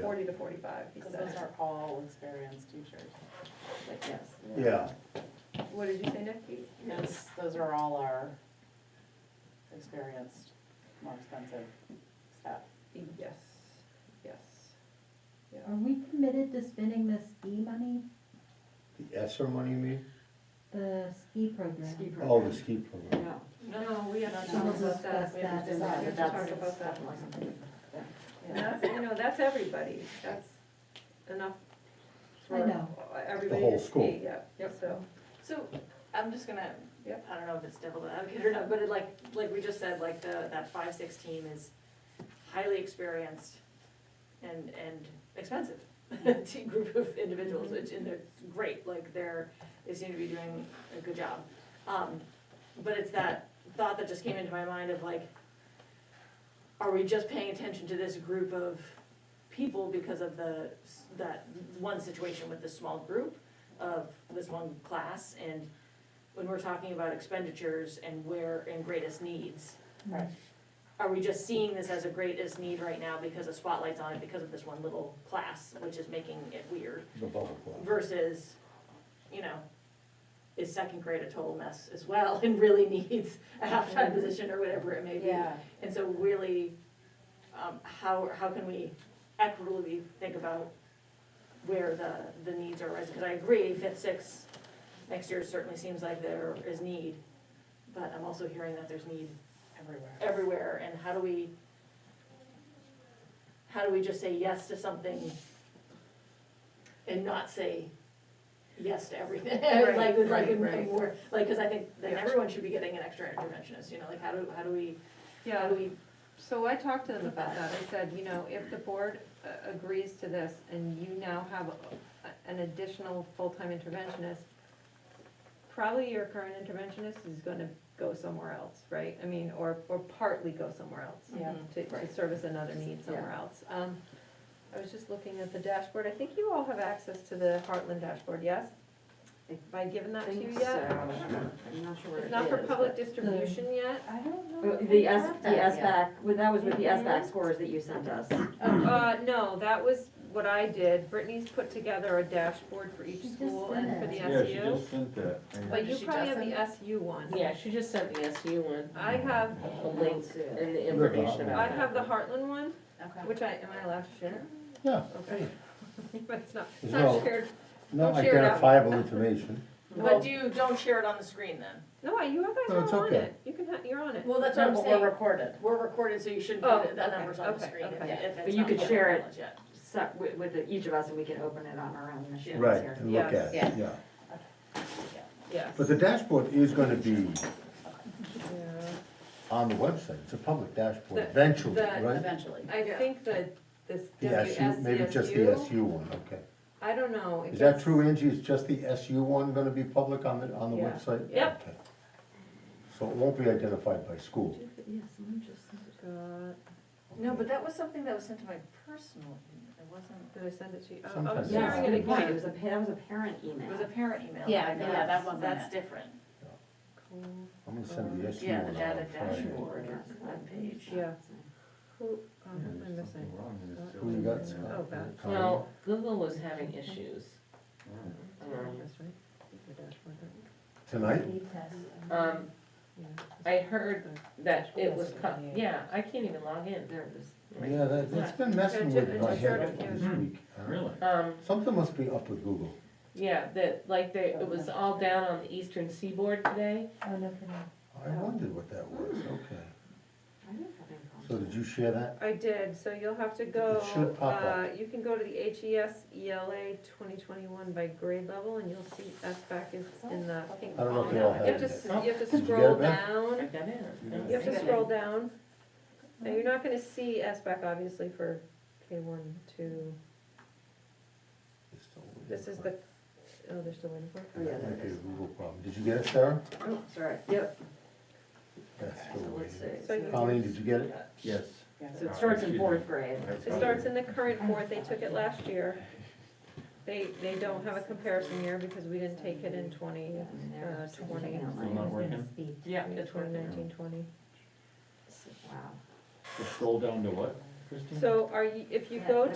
forty to forty-five, he Because those said. are all experienced teachers. But yes, Yeah, What did you say, Nick? He- those, those are all our experienced, more expensive staff. Yes, yes, yeah. Are we committed to spending the ski money, the ESSER money, you mean? the ski program? Ski Mm-hmm. program. Oh, the ski program. No, no, we have to No, no, discuss that, that's- we have to that's- decide, we but have to that's, talk about that. that wasn't. And that's, you know, that's everybody, that's enough for I know. everybody The to whole school. see, yeah, so, So, I'm just gonna, Yep. I don't know if it's devil advocate or not, but it like, like we just said, like the, that five, six team is highly experienced and, and expensive team group of individuals, which, and they're great, like they're, they seem to be doing a good job. Um, but it's that thought that just came into my mind of like, are we just paying attention to this group of people because of the, s- that one situation with this small group of this one class? And when we're talking about expenditures and where, and greatest needs, Right. are we just seeing this as a greatest need right now because the spotlight's on it because of this one little class, which is making it weird? The bubble club. versus, you know, is second grade a total mess as well and really needs a halftime position or whatever it may be? Yeah, And so really, um, how, how can we equitably think about where the, the needs are rising? Because I agree, fifth, sixth, next year certainly seems like there is need, but I'm also hearing that there's need everywhere. everywhere, and how do we, how do we just say yes to something and not say yes to everything? Right, Like, like, right, and- right. and more, like, because I think then Yeah. everyone should be getting an extra interventionist, you know, like, how do, how do we, how Yeah, do we, so I talked to them about that, I said, you know, if the board uh, agrees to this and you now have a- an additional full-time interventionist, probably your current interventionist is gonna go somewhere else, right? I mean, or, or partly go somewhere else Yeah. to, to service another need somewhere else. Um, I was just looking at the dashboard, I think you all have access to the Heartland dashboard, yes? Have I given that to you yet? I'm not sure It's not for public distribution yet? I don't know. if The I S, have the that S yet. Mm-hmm. back, well, that was with the S back Mhm. scores that you sent us. Uh, no, that was what I did. Brittany's put together a dashboard for each She just school did and for the it. Yeah, she SU. just sent that. and- But you She probably have doesn't? the SU one. Yeah, she just sent the SU one, I have, the links and the information I about that. have the Heartland one, Okay. which I, am I allowed to share? Yeah, Okay. But it's not, it's No. not shared. not Don't share it out. identifiable information. But do you, don't share it on the screen then? No, I- you guys No, it's are on okay. it. You can, ha- you're on it. Well, that's No, but We're recorded. We're recorded, so you shouldn't Oh, put the okay, numbers on the okay, screen if, okay. if it's not. But you could public share it. knowledge yet. So, with, with the- each of us, and we can open it on our own machines Right, here. and look Yes. at it, yeah. Yes. But the dashboard is gonna be Yeah. on the website, it's a public dashboard The- eventually, the- right? Eventually. I Yeah. think that this The SU, maybe just the WSCSU, SU one, okay. I don't know. if Is that it's- true, Angie, is just the SU one gonna be public on the, on the Yeah. website? Yep. Okay. So it won't be identified by school? Yeah, someone just sent it. God, No, but that was something that was sent to my personal, email. it wasn't, Did I send it to you? Oh, I'm Sometimes it's- sharing it Good point, it again. was a, pa- that was a parent email. it was a parent email. Yeah, I got. yeah, that wasn't That's it. different. Cool. I'm gonna send the SU one Yeah, out the on data Friday. dashboard or web page. Yeah. Who, oh, who Yeah, am I there's missing? something wrong and it's Uh, still Who you in got? there. Scott? Oh, God. Connie? Well, Google was having issues, Mm. um, That's right. The dashboard, right? Tonight? Ski test. um, Yeah. I heard that it was cut, yeah, I can't even log in, there it is. Right. Yeah, that, that's been messing with my head Yeah. this week. huh? Oh, Really? Um, Something must be up with Google. yeah, that, like, they, it was all down on the eastern seaboard today, Oh, no kidding. I wondered what that was, okay. I didn't have any problems. So did you share that? I did, so you'll have to go, should pop uh, up. you can go to the E HES ELA twenty twenty-one by grade level, and you'll see S back is in the pink. I don't know if column. they all You have have to, it. s- you have to Did you get scroll it back? I down, got in. you have to Yeah. scroll down. Now, you're not gonna see S back obviously for K one, two, this is the, oh, they're still waiting for it? That might be a Google problem. Did you get it, Sarah? Oh, sorry, yep, That's so still let's see. waiting. So you- Colleen, did you get it? Yes. So it starts in fourth grade. It starts in the current board, they took it last year. They, they don't have a comparison year because we didn't take it in twenty, And uh, there, so it's twenty, online. Still not working? Speed. Yeah, yeah, it's twenty working. nineteen, twenty. Wow. Just Scroll down to what, Christine? So are you, if you go